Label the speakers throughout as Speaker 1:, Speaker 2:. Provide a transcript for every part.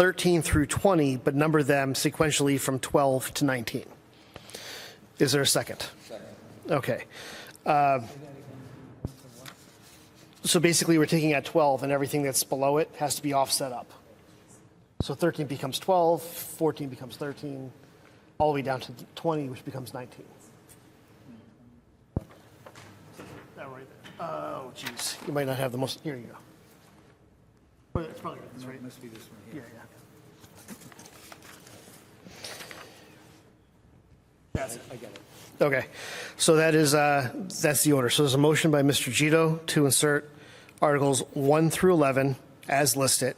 Speaker 1: 13 through 20, but number them sequentially from 12 to 19. Is there a second? Okay. Uh, So basically, we're taking out 12, and everything that's below it has to be offset up. So 13 becomes 12, 14 becomes 13, all the way down to 20, which becomes 19. That right there. Oh, geez. You might not have the most, here you go. Well, it's probably right, that's right.
Speaker 2: Must be this one here.
Speaker 1: Yeah, yeah. That's it.
Speaker 2: I get it.
Speaker 1: Okay, so that is, uh, that's the order. So there's a motion by Mr. Gito to insert Articles 1 through 11 as listed,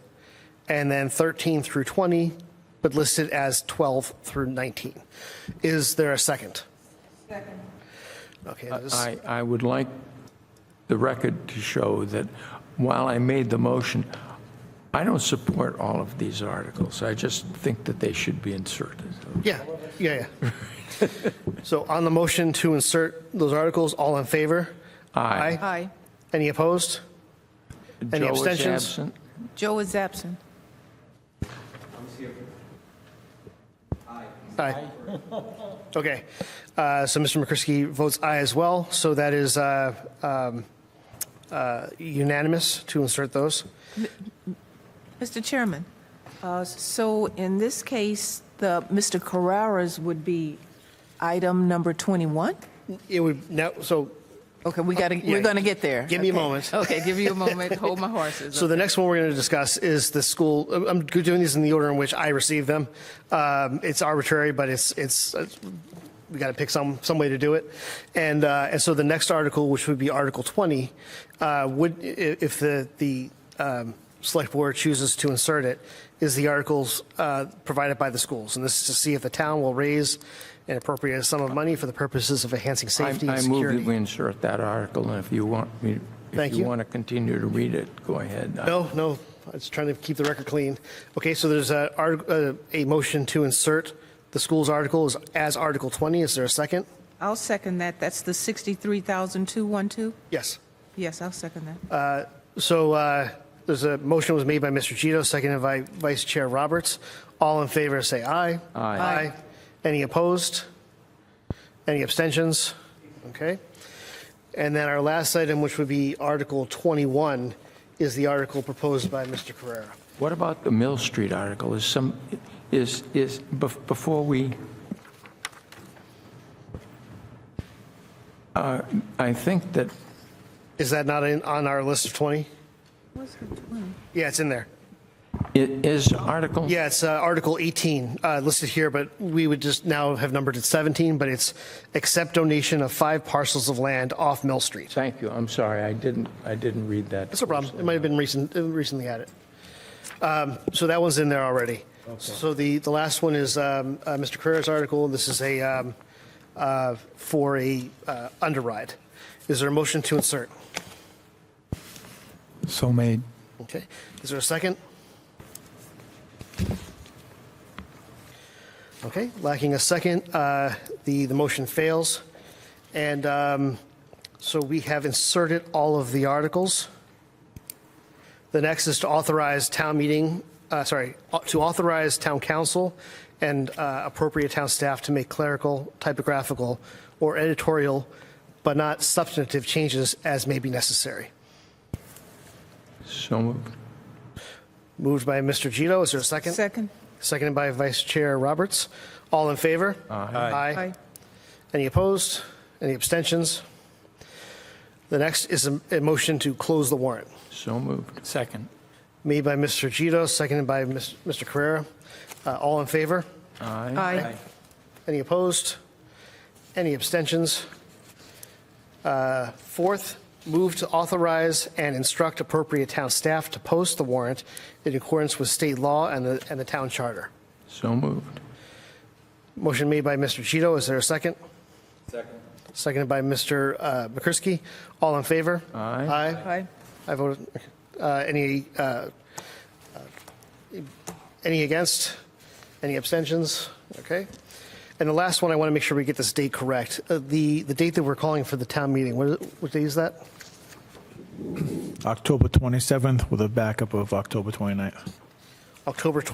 Speaker 1: and then 13 through 20, but listed as 12 through 19. Is there a second? Second. Okay, this-
Speaker 3: I, I would like the record to show that while I made the motion, I don't support all of these articles. I just think that they should be inserted.
Speaker 1: yeah, yeah, yeah. So on the motion to insert those articles, all in favor?
Speaker 3: Aye.
Speaker 4: Aye.
Speaker 1: Any opposed? Any
Speaker 3: Joe is
Speaker 1: abstentions?
Speaker 3: absent.
Speaker 4: Joe is absent.
Speaker 1: Aye. Okay, Uh, so Mr. McCrisky votes aye as well, so that is uh, um, uh, unanimous to insert those.
Speaker 4: Mr. Chairman, uh, so in this case, the, Mr. Carrara's would be item number 21?
Speaker 1: It would, now, so,
Speaker 4: Okay, we gotta,
Speaker 1: Yeah.
Speaker 4: we're gonna get there.
Speaker 1: Give me a
Speaker 4: Okay.
Speaker 1: moment.
Speaker 4: Okay, give you a moment, hold my horses.
Speaker 1: so the next one we're going to discuss is the school, I'm- I'm doing these in the order in which I received them. Um, It's arbitrary, but it's, it's, uh, we got to pick some, some way to do it. And, uh, and so the next article, which would be Article 20, uh, would, i- if the, the um, select board chooses to insert it, is the articles uh, provided by the schools. And this is to see if the town will raise an appropriate sum of money for the purposes of enhancing
Speaker 3: I
Speaker 1: safety and
Speaker 3: I move that we
Speaker 1: security.
Speaker 3: insert that article, and if you want me,
Speaker 1: Thank
Speaker 3: if
Speaker 1: you.
Speaker 3: you want to continue to read it, go ahead. Uh,
Speaker 1: No, no, I was trying to keep the record clean. Okay, so there's a, art- uh, a motion to insert the school's article as- as Article 20. Is there a second?
Speaker 4: I'll second that, that's the 63,212?
Speaker 1: Yes.
Speaker 4: Yes, I'll second that.
Speaker 1: Uh, So uh, there's a motion was made by Mr. Gito, seconded by Vice Chair Roberts. All in favor, say aye.
Speaker 3: Aye.
Speaker 1: Aye. Any opposed? Any abstentions? Okay. And then our last item, which would be Article 21, is the article proposed by Mr. Carrera.
Speaker 3: What about the Mill Street article? Is some, is, is, bef- before we, Uh, I think that
Speaker 1: Is that not in, on our list of 20? Yeah, it's in there.
Speaker 3: it is Article
Speaker 1: Yeah, it's uh, Article 18 uh, listed here, but we would just now have numbered it 17, but it's accept donation of five parcels of land off Mill Street.
Speaker 3: Thank you, I'm sorry, I didn't, I didn't read that.
Speaker 1: That's no problem. It might have been recent, uh, recently added. Um, So that one's in there already. So the, the last one is um, uh, Mr. Carrera's article. This is a, um, uh, for a uh, underride. Is there a motion to insert?
Speaker 5: So made.
Speaker 1: Okay. Is there a second? Okay, lacking a second, uh, the, the motion fails. And um, so we have inserted all of the articles. The next is to authorize town meeting, uh, sorry, au- to authorize town council and uh, appropriate town staff to make clerical, typographical, or editorial, but not substantive changes as may be necessary.
Speaker 3: So moved.
Speaker 1: Moved by Mr. Gito. Is there a second?
Speaker 4: Second?
Speaker 1: Seconded by Vice Chair Roberts. All in favor? Aye.
Speaker 4: Aye.
Speaker 1: Any opposed? Any abstentions? The next is a a motion to close the warrant.
Speaker 3: so moved.
Speaker 5: Second.
Speaker 1: Made by Mr. Gito, seconded by Ms- Mr. Carrera. Uh, All in favor?
Speaker 3: Aye.
Speaker 4: Aye.
Speaker 1: Any opposed? Any abstentions? Uh, Fourth, move to authorize and instruct appropriate town staff to post the warrant in accordance with state law and the and the town charter.
Speaker 3: So moved.
Speaker 1: Motion made by Mr. Cheeto. Is there a second? Second. Seconded by Mr. uh, McCrisky. All in favor?
Speaker 3: Aye.
Speaker 1: Aye.
Speaker 4: Aye.
Speaker 1: I voted, uh, any, uh, uh, any against? Any abstentions? Okay. And the last one, I want to make sure we get this date correct. Uh, The, the date that we're calling for the town meeting, what, what day is that?
Speaker 5: October 27th with a backup of October 29th.
Speaker 1: October 20